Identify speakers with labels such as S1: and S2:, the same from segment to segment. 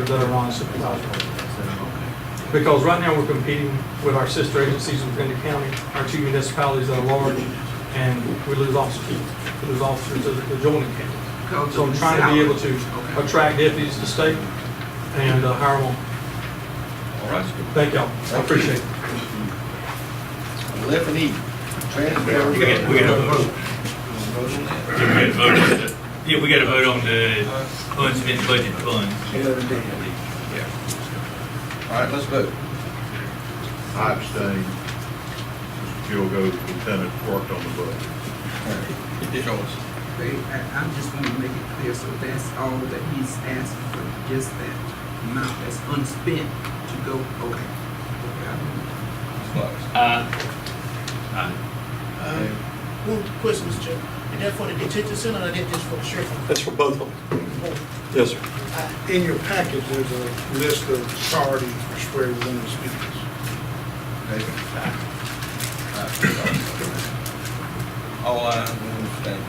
S1: that are non-supervisory. Because right now, we're competing with our sister agencies within the county, our two municipalities that are large, and we lose officers, we lose officers to the adjoining counties. So I'm trying to be able to attract deputies to state and uh, hire them.
S2: All right.
S1: Thank y'all, I appreciate it.
S3: Left and E.
S4: We got, we got a vote.
S3: Transfer.
S4: Yeah, we got a vote on the, yeah, we got a vote on the unspent budget funds. Yeah.
S3: All right, let's vote.
S2: I abstain. Joe goes, Lieutenant worked on the budget.
S3: Joyce.
S5: They, I, I just want to make it clear, so that's all that he's asking for, just that amount that's unspent to go, okay. Okay, I-
S3: Bucks.
S4: Uh,
S6: Uh, One question, Mr. Chairman. Is that for the detention center or that just for the sheriff?
S1: That's for both of them. Yes, sir.
S7: Uh, In your package, there's a list of priorities for where we want to spend this.
S3: David. All ayes, one abstention.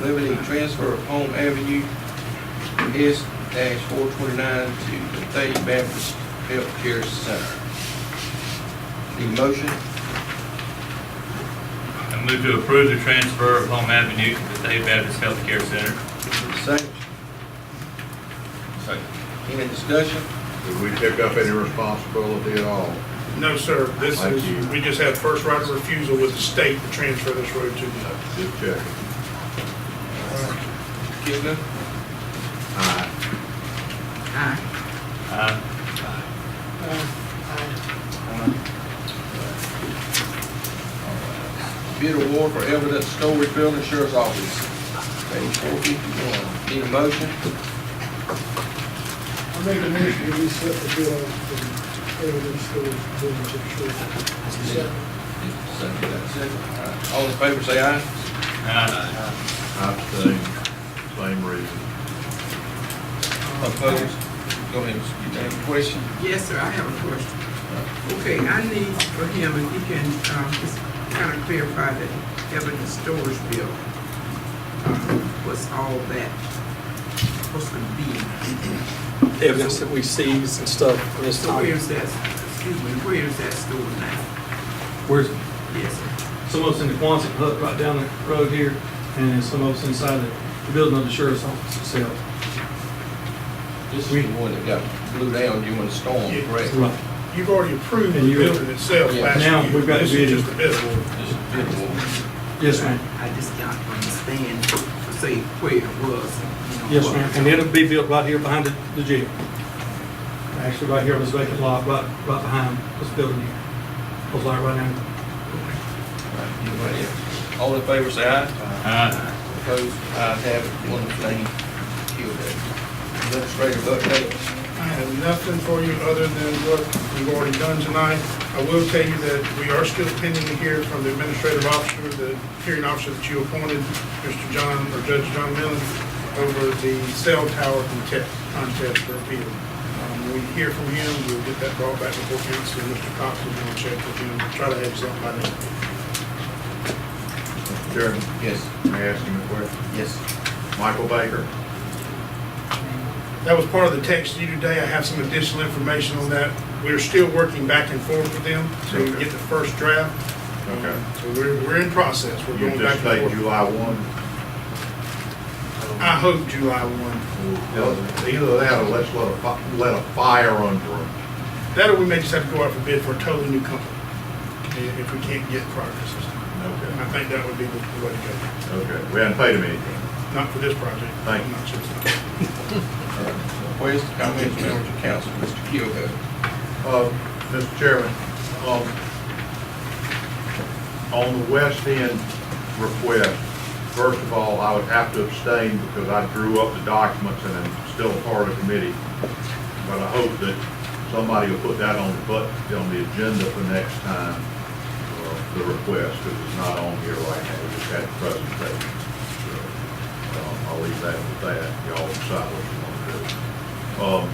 S3: Liberty transfer of Home Avenue S dash four twenty-nine to the Thady Baptist Health Care Center. Need a motion?
S4: I move to approve the transfer of Home Avenue to the State Baptist Healthcare Center.
S3: Need a Second.
S4: Second.
S3: Any discussion?
S2: Did we pick up any responsibility at all?
S7: No, sir, this
S2: Thank you.
S7: is, we just had first right of refusal with the state to transfer this road to the.
S2: Just checking.
S3: Kidner?
S2: Aye.
S5: Aye.
S4: Uh,
S3: Bid award for evidence storage building sheriff's office, page four fifty-one. Need a motion?
S8: I make a motion to reset the bid on the evidence storage building chip short.
S3: Second, that's second. All right. All in favor, say aye.
S4: uh,
S2: I abstain. Same reason.
S5: uh,
S3: Opposed? Go ahead, Mr. Chairman. Any question?
S5: Yes, sir, I have a question. Okay, I need for him, if he can, um, just kind of clarify that evidence storage bill, um, what's all that supposed to be?
S1: Evidence that we seize and stuff, and it's
S5: So
S1: not,
S5: where's that, excuse me, where is that stored now?
S1: we're,
S5: Yes, sir.
S1: some of us in the Quonset hut right down the road here, and some of us inside the building of the sheriff's office itself.
S3: This is the one that got blew down during the storm,
S7: Yeah.
S3: correct?
S1: Right.
S7: You've already approved the
S1: And you-
S7: building itself
S3: Yeah.
S7: last year.
S1: Now we've got
S7: This
S1: the
S7: is
S1: bidding.
S7: just the bid award.
S3: This is bid award.
S1: Yes, ma'am.
S5: I just don't understand, say, where it was. you know,
S1: Yes,
S5: what-
S1: ma'am, and it'll be built right here behind the- the jail. Actually, right here on this vacant lot, right, right behind this building here. Goes like right now.
S3: Anybody else? All in favor, say aye.
S4: uh,
S3: Opposed? Ayes have it, one abstaining. Killed that. Administrative update.
S7: I have nothing for you other than what we've already done tonight. I will tell you that we are still pending to hear from the administrative officer, the hearing officer that you appointed, Mr. John, or Judge John Millen, over the cell tower contest, contest for appeal. Um, We hear from him, we'll get that brought back before council, and Mr. Cox is going to check with him, try to have something by then.
S2: Chairman,
S3: Yes,
S2: may I ask him a question?
S3: yes.
S2: Michael Baker,
S7: That was part of the text to you today. I have some additional information on that. We're still working back and forth with them to
S2: Okay.
S7: get the first draft.
S2: Okay.
S7: So we're, we're in process. We're
S2: you
S7: going back
S2: just state
S7: and forth.
S2: July one.
S7: I hope July one.
S2: Either that or let's let a, fi- let a fire under them.
S7: That or we may just have to go out for bid for a totally new company i- if we can't get progress this time. And I
S2: Okay,
S7: think that would be the the way to go.
S2: okay. We haven't paid him anything.
S7: Not for this project.
S2: Thank you.
S7: Not just-
S3: Where's the comments, members of council, Mr. Kilgore?
S2: Uh, Mr. Chairman, um, on the West End request, first of all, I would have to abstain because I drew up the documents and I'm still a part of the committee. But I hope that somebody will put that on the, but, on the agenda for next time, uh, the request, because it's not on here right now. We just had the presentation. So, um, I'll leave that with that. Y'all decide what you want to do. Um,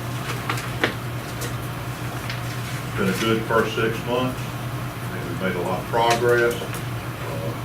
S2: been a good first six months. I think We've made a lot of progress. Uh,